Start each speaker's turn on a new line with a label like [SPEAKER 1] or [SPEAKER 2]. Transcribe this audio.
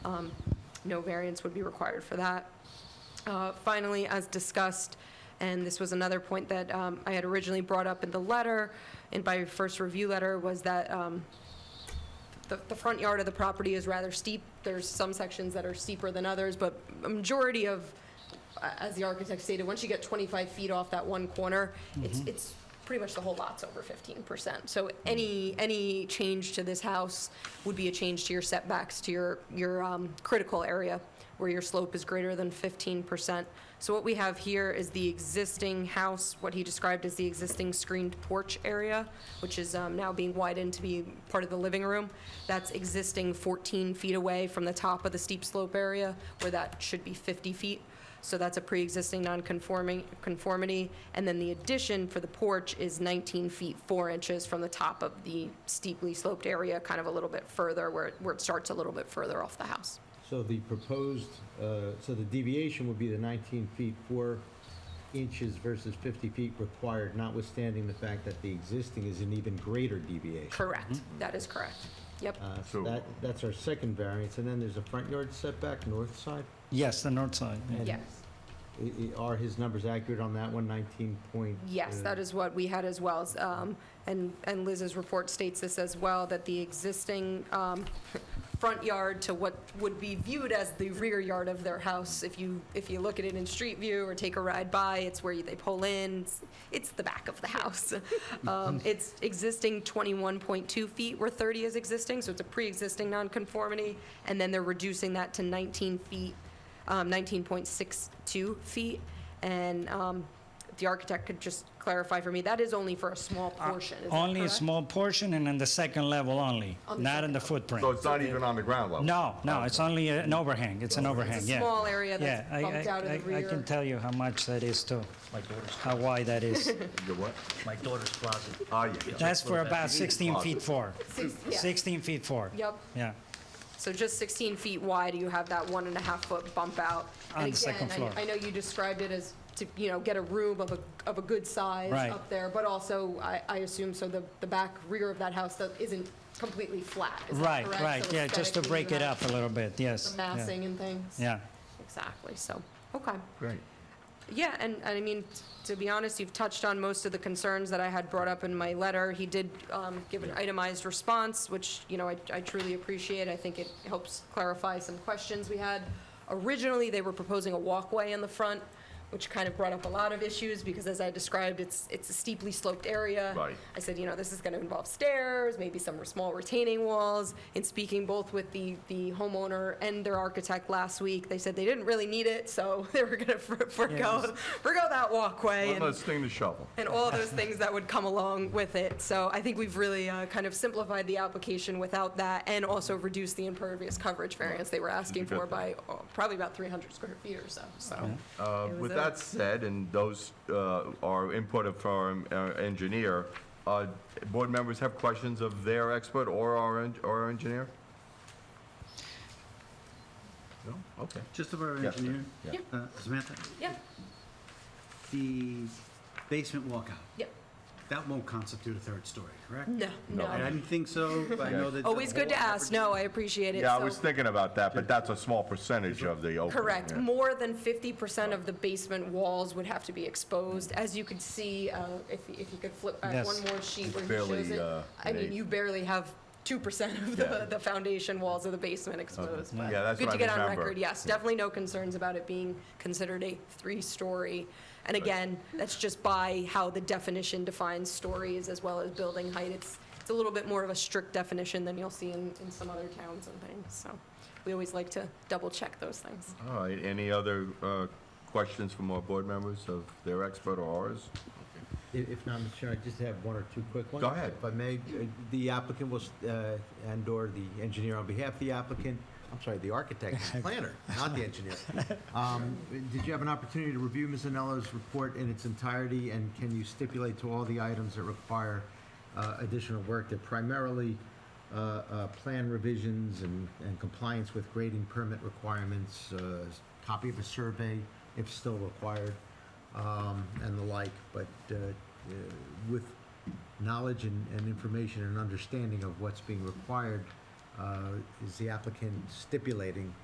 [SPEAKER 1] Um, No variance would be required for that. Uh, Finally, as discussed, and this was another point that um, I had originally brought up in the letter, and by first review letter, was that um, the, the front yard of the property is rather steep. There's some sections that are steeper than others, but a majority of, a- as the architect stated, once you get 25 feet off that one corner, it's, it's pretty much the whole lot's over 15%. So any, any change to this house would be a change to your setbacks, to your, your um, critical area where your slope is greater than 15%. So what we have here is the existing house, what he described as the existing screened porch area, which is um, now being widened to be part of the living room. That's existing 14 feet away from the top of the steep slope area, where that should be 50 feet. So that's a pre-existing non-conforming, conformity. And then the addition for the porch is 19 feet 4 inches from the top of the steeply sloped area, kind of a little bit further, where it- where it starts a little bit further off the house.
[SPEAKER 2] So the proposed, uh, so the deviation would be the 19 feet 4 inches versus 50 feet required, notwithstanding the fact that the existing is an even greater deviation.
[SPEAKER 1] Correct. That is correct. Yep.
[SPEAKER 2] Uh,
[SPEAKER 3] So-
[SPEAKER 2] So that, that's our second variance, and then there's a front yard setback, north side.
[SPEAKER 4] Yes, the north side. yeah.
[SPEAKER 2] and
[SPEAKER 1] Yes.
[SPEAKER 2] i- i- Are his numbers accurate on that one, 19 point? uh,
[SPEAKER 1] Yes, that is what we had as well. s- um, And, and Liz's report states this as well, that the existing um, front yard to what would be viewed as the rear yard of their house, if you, if you look at it in street view or take a ride by, it's where you- they pull in, it's- it's the back of the house. Um, It's existing 21.2 feet where 30 is existing, so it's a pre-existing nonconformity, and then they're reducing that to 19 feet, um, 19.62 feet. And um, the architect could just clarify for me, that is only for a small portion, is that
[SPEAKER 4] Uh, Only a
[SPEAKER 1] correct?
[SPEAKER 4] small portion and on the second level only,
[SPEAKER 1] On the
[SPEAKER 4] not
[SPEAKER 1] second
[SPEAKER 4] in the
[SPEAKER 1] level.
[SPEAKER 4] footprint.
[SPEAKER 3] So it's not even on the ground level?
[SPEAKER 4] No, no, it's only an overhang, it's an overhang,
[SPEAKER 1] It's a
[SPEAKER 4] yeah.
[SPEAKER 1] small area that's
[SPEAKER 4] Yeah, I-
[SPEAKER 1] bumped
[SPEAKER 4] I-
[SPEAKER 1] out of the
[SPEAKER 4] I- I
[SPEAKER 1] rear.
[SPEAKER 4] can tell you how much that is too,
[SPEAKER 5] My daughter's,
[SPEAKER 4] how wide that is.
[SPEAKER 3] The what?
[SPEAKER 5] my daughter's closet.
[SPEAKER 3] Ah, yeah, yeah.
[SPEAKER 4] That's for about 16
[SPEAKER 3] Awesome.
[SPEAKER 4] feet four.
[SPEAKER 1] Six- yeah.
[SPEAKER 4] 16 feet four.
[SPEAKER 1] Yep.
[SPEAKER 4] Yeah,
[SPEAKER 1] So just 16 feet wide, you have that one and a half foot bump out.
[SPEAKER 4] On
[SPEAKER 1] And
[SPEAKER 4] the second
[SPEAKER 1] again, I-
[SPEAKER 4] floor.
[SPEAKER 1] I know you described it as to, you know, get a room of a, of a good size
[SPEAKER 4] Right.
[SPEAKER 1] up there, but also, I, I assume, so the, the back rear of that house that isn't completely flat, is that
[SPEAKER 4] right,
[SPEAKER 1] correct?
[SPEAKER 4] right,
[SPEAKER 1] So
[SPEAKER 4] yeah, just to
[SPEAKER 1] aesthetically, you
[SPEAKER 4] break it
[SPEAKER 1] have
[SPEAKER 4] up a little bit, yes.
[SPEAKER 1] the
[SPEAKER 4] yeah,
[SPEAKER 1] Massing and things?
[SPEAKER 4] Yeah,
[SPEAKER 1] Exactly, so, okay.
[SPEAKER 3] Great.
[SPEAKER 1] Yeah, and, and I mean, t- to be honest, you've touched on most of the concerns that I had brought up in my letter. He did um, give an itemized response, which, you know, I I truly appreciate. I think it helps clarify some questions we had. Originally, they were proposing a walkway in the front, which kind of brought up a lot of issues, because as I described, it's, it's a steeply sloped area.
[SPEAKER 3] Right.
[SPEAKER 1] I said, you know, this is going to involve stairs, maybe some small retaining walls. In speaking both with the, the homeowner and their architect last week, they said they didn't really need it, so they were going to forego, forego that walkway
[SPEAKER 3] One
[SPEAKER 1] and,
[SPEAKER 3] less thing to shovel.
[SPEAKER 1] and all those things that would come along with it. So I think we've really uh, kind of simplified the application without that and also reduced the impervious coverage variance they were asking
[SPEAKER 3] good
[SPEAKER 1] for by
[SPEAKER 3] thing.
[SPEAKER 1] uh, probably about 300 square feet or so, so.
[SPEAKER 3] Uh,
[SPEAKER 1] It was
[SPEAKER 3] With
[SPEAKER 1] a-
[SPEAKER 3] that said, and those uh, are input of our um, our engineer, uh, board members have questions of their expert or our en- or our engineer? No? Okay.
[SPEAKER 6] Just about our
[SPEAKER 3] Yes, sir.
[SPEAKER 6] engineer,
[SPEAKER 3] Yeah.
[SPEAKER 6] uh, Samantha,
[SPEAKER 1] Yeah,
[SPEAKER 6] the basement walkout,
[SPEAKER 1] yeah,
[SPEAKER 6] that won't constitute a third story, correct?
[SPEAKER 1] no,
[SPEAKER 3] No.
[SPEAKER 6] I
[SPEAKER 1] no.
[SPEAKER 6] didn't think so, but I know that. the
[SPEAKER 1] Always good to
[SPEAKER 6] whole
[SPEAKER 1] ask, no, I appreciate it.
[SPEAKER 3] Yeah, I
[SPEAKER 1] So-
[SPEAKER 3] was thinking about that, but that's a small percentage of the opening.
[SPEAKER 1] Correct.
[SPEAKER 3] yeah.
[SPEAKER 1] More than 50% of the basement walls would have to be exposed. As you could see, uh, if if you could flip back
[SPEAKER 4] Yes.
[SPEAKER 1] one more sheet where he
[SPEAKER 3] Barely,
[SPEAKER 1] shows it.
[SPEAKER 3] uh,
[SPEAKER 1] I mean,
[SPEAKER 3] made.
[SPEAKER 1] you barely have 2% of the
[SPEAKER 3] Yeah.
[SPEAKER 1] the foundation walls of the basement exposed. but
[SPEAKER 3] Yeah, that's what
[SPEAKER 1] Good
[SPEAKER 3] I
[SPEAKER 1] to get on
[SPEAKER 3] remember.
[SPEAKER 1] record, yes. Definitely no concerns about it being considered a three-story. And again, that's just by how the definition defines stories as well as building height. It's it's a little bit more of a strict definition than you'll see in in some other towns and things. So we always like to double-check those things.
[SPEAKER 3] All right, any other uh, questions from our board members of their expert or ours?
[SPEAKER 2] I- If not, Mr. Chairman, I just have one or two quick ones.
[SPEAKER 3] Go ahead.
[SPEAKER 2] If I may, uh, the applicant was, uh, and/or the engineer on behalf of the applicant, I'm sorry, the architect, and planner, not the engineer. Um, Did you have an opportunity to review Ms. Anello's report in its entirety, and can you stipulate to all the items that require uh, additional work that primarily uh, uh, plan revisions and and compliance with grading permit requirements, uh, copy of a survey if still required, um, and the like, but uh, uh, with knowledge and, and information and understanding of what's being required, uh, is the applicant stipulating